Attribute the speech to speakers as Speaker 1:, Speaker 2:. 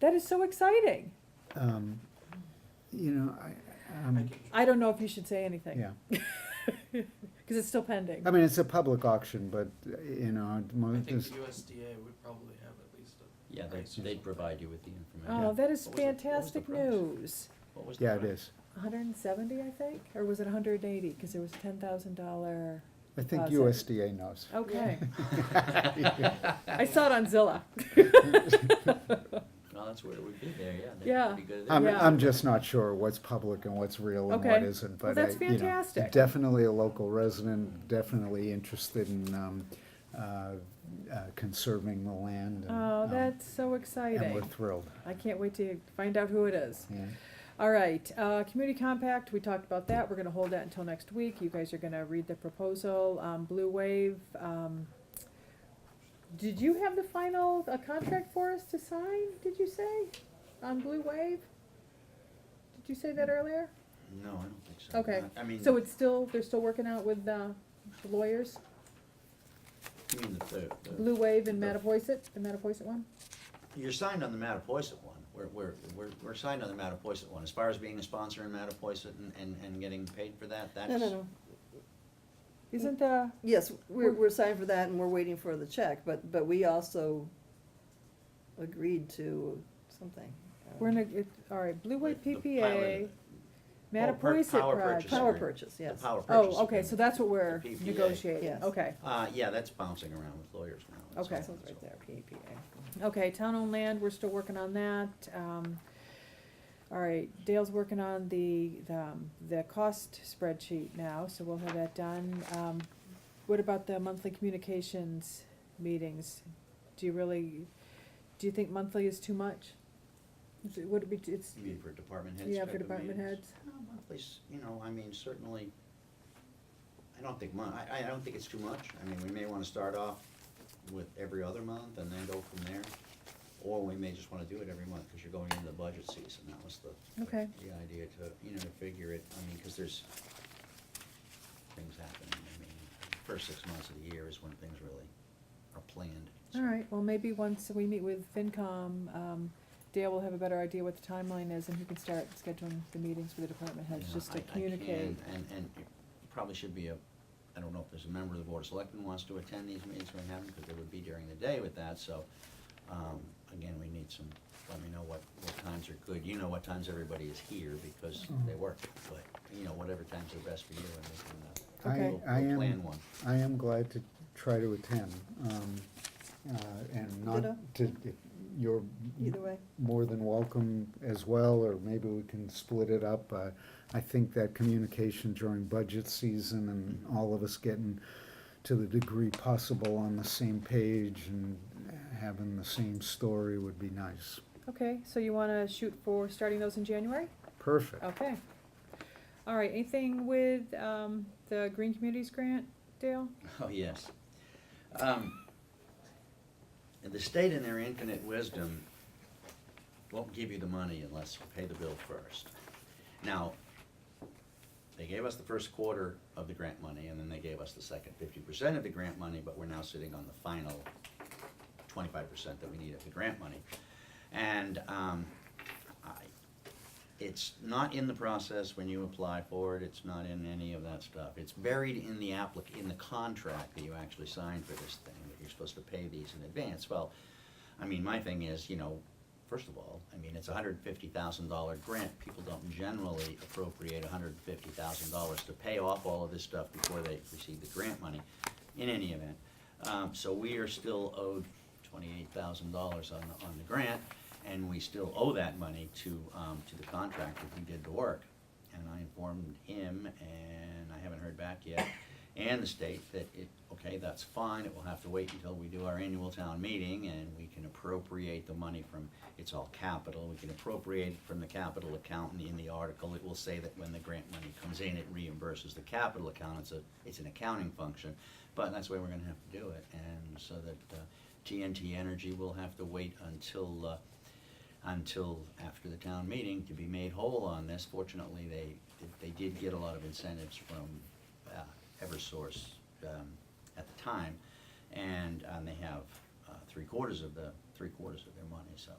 Speaker 1: That is so exciting.
Speaker 2: Um, You know, I, um,
Speaker 1: I don't know if you should say anything.
Speaker 2: yeah.
Speaker 1: Because it's still pending.
Speaker 2: I mean, it's a public auction, but, uh, you know,
Speaker 3: I
Speaker 2: mo-
Speaker 3: think
Speaker 2: this,
Speaker 3: USDA would probably have at least a.
Speaker 4: Yeah, they,
Speaker 3: price or
Speaker 4: they'd
Speaker 3: something.
Speaker 4: provide you with the information.
Speaker 1: Oh, that is
Speaker 3: What was the- what was the
Speaker 1: fantastic
Speaker 3: price?
Speaker 1: news.
Speaker 4: What was the
Speaker 2: yeah, it
Speaker 4: price?
Speaker 2: is.
Speaker 1: hundred and seventy, I think, or was it hundred and eighty? Because there was ten thousand dollar,
Speaker 2: I think
Speaker 1: Uh, so-
Speaker 2: USDA knows.
Speaker 1: okay.
Speaker 2: Yeah.
Speaker 1: I saw it on Zillow.
Speaker 4: No, that's where it would be there, yeah. That'd
Speaker 1: Yeah.
Speaker 4: be good there.
Speaker 2: I'm,
Speaker 1: Yeah.
Speaker 2: I'm just not sure what's public and what's real and what
Speaker 1: Okay.
Speaker 2: isn't,
Speaker 1: Well,
Speaker 2: but I,
Speaker 1: that's
Speaker 2: you know,
Speaker 1: fantastic.
Speaker 2: definitely a local resident, definitely interested in, um, uh, uh, conserving the land. and,
Speaker 1: Oh,
Speaker 2: um,
Speaker 1: that's so
Speaker 2: And we're
Speaker 1: exciting.
Speaker 2: thrilled,
Speaker 1: I can't wait to find out who it is.
Speaker 2: yeah.
Speaker 1: All right, uh, community compact, we talked about that. We're gonna hold that until next week. You guys are gonna read the proposal, um, Blue Wave, um. Did you have the final, uh contract for us to sign, did you say, on Blue Wave? Did you say that earlier?
Speaker 4: No, I don't think so.
Speaker 1: Okay.
Speaker 4: I- I mean,
Speaker 1: So it's still, they're still working out with uh, the lawyers,
Speaker 4: you mean the third, the-
Speaker 1: Blue Wave and Matipoiset, the Matipoiset one?
Speaker 4: You're signed on the Mattapoisett one. We're, we're, we're, we're signed on the Mattapoisett one. As far as being a sponsor in Mattapoisett and, and, and getting paid for that, that's.
Speaker 5: No, no, no.
Speaker 1: Isn't the,
Speaker 5: Yes, we're,
Speaker 1: We're-
Speaker 5: we're signed for that and we're waiting for the check, but, but we also agreed to something. um,
Speaker 1: we're in a, it- all right, Blue Wave
Speaker 4: The- the
Speaker 1: PPA,
Speaker 4: pilot- oh, per-
Speaker 1: Matipoiset
Speaker 4: power
Speaker 1: project.
Speaker 4: purchase
Speaker 5: Power
Speaker 4: agreement.
Speaker 5: purchase,
Speaker 4: The
Speaker 5: yes.
Speaker 4: power purchase.
Speaker 1: Oh, okay, so
Speaker 4: agreement.
Speaker 1: that's what we're
Speaker 4: The PPA.
Speaker 1: negotiating,
Speaker 5: Yes.
Speaker 1: okay.
Speaker 4: Uh, yeah, that's bouncing around with lawyers now. That's
Speaker 1: Okay.
Speaker 4: all-
Speaker 5: That sounds right there, PPA.
Speaker 1: Okay, town-owned land, we're still working on that. Um, all right, Dale's working on the, the, um, the cost spreadsheet now, so we'll have that done. Um, what about the monthly communications meetings? Do you really, do you think monthly is too much? Is it- Would it be, it's,
Speaker 4: You mean for department heads?
Speaker 1: yeah,
Speaker 4: type
Speaker 1: for
Speaker 4: of
Speaker 1: department
Speaker 4: meetings?
Speaker 1: heads?
Speaker 4: No, monthly, s- you know, I mean, certainly, I don't think mon, I, I don't think it's too much. I mean, we may wanna start off with every other month and then go from there. Or we may just wanna do it every month, cause you're going into the budget season, that was the,
Speaker 1: Okay.
Speaker 4: the idea to, you know, to figure it, I mean, cause there's things happening, I mean, first six months of the year is when things really are planned. so.
Speaker 1: All right, well, maybe once we meet with FinCom, um, Dale will have a better idea what the timeline is, and he can start scheduling the meetings for the department heads,
Speaker 4: Yeah,
Speaker 1: just to
Speaker 4: I- I can,
Speaker 1: communicate.
Speaker 4: And, and it probably should be a, I don't know if there's a member of the Board of Selectmen wants to attend these meetings, we haven't, because they would be during the day with that, so, um, again, we need some, let me know what, what times are good, you know what times everybody is here, because
Speaker 2: Mm-hmm.
Speaker 4: they work, but, you know, whatever times are best for you, and we
Speaker 2: I,
Speaker 4: can, uh, we'll-
Speaker 2: I
Speaker 4: we'll
Speaker 2: am.
Speaker 4: plan one.
Speaker 2: I am glad to try to attend, um, uh, and not
Speaker 5: Ditto.
Speaker 2: to, you're
Speaker 5: Either way,
Speaker 2: more than welcome as well, or maybe we can split it up. Uh, I think that communication during budget season and all of us getting to the degree possible on the same page and having the same story would be nice.
Speaker 1: Okay, so you wanna shoot for starting those in January?
Speaker 2: Perfect.
Speaker 1: Okay. All right, anything with, um, the Green Communities Grant, Dale?
Speaker 4: Oh, yes. Um, and the state in their infinite wisdom won't give you the money unless you pay the bill first. Now, they gave us the first quarter of the grant money, and then they gave us the second fifty percent of the grant money, but we're now sitting on the final twenty-five percent that we need of the grant money. And, um, I, it's not in the process when you apply for it, it's not in any of that stuff. It's buried in the applic, in the contract that you actually signed for this thing, that you're supposed to pay these in advance. Well, I mean, my thing is, you know, first of all, I mean, it's a hundred fifty thousand dollar grant. People don't generally appropriate hundred fifty thousand dollars to pay off all of this stuff before they receive the grant money, in any event. Um, so we are still owed twenty-eight thousand dollars on the, on the grant, and we still owe that money to, um, to the contractor who did the work. And I informed him, and I haven't heard back yet, and the state that it, okay, that's fine, it will have to wait until we do our annual town meeting, and we can appropriate the money from, it's all capital, we can appropriate it from the capital account, and in the article, it will say that when the grant money comes in, it reimburses the capital account, it's a, it's an accounting function, but that's the way we're gonna have to do it, and so that, uh, TNT Energy will have to wait until, uh, until after the town meeting to be made whole on this. Fortunately, they, they did get a lot of incentives from uh, Eversource um, at the time, and um, they have uh, three quarters of the, three quarters of their money, so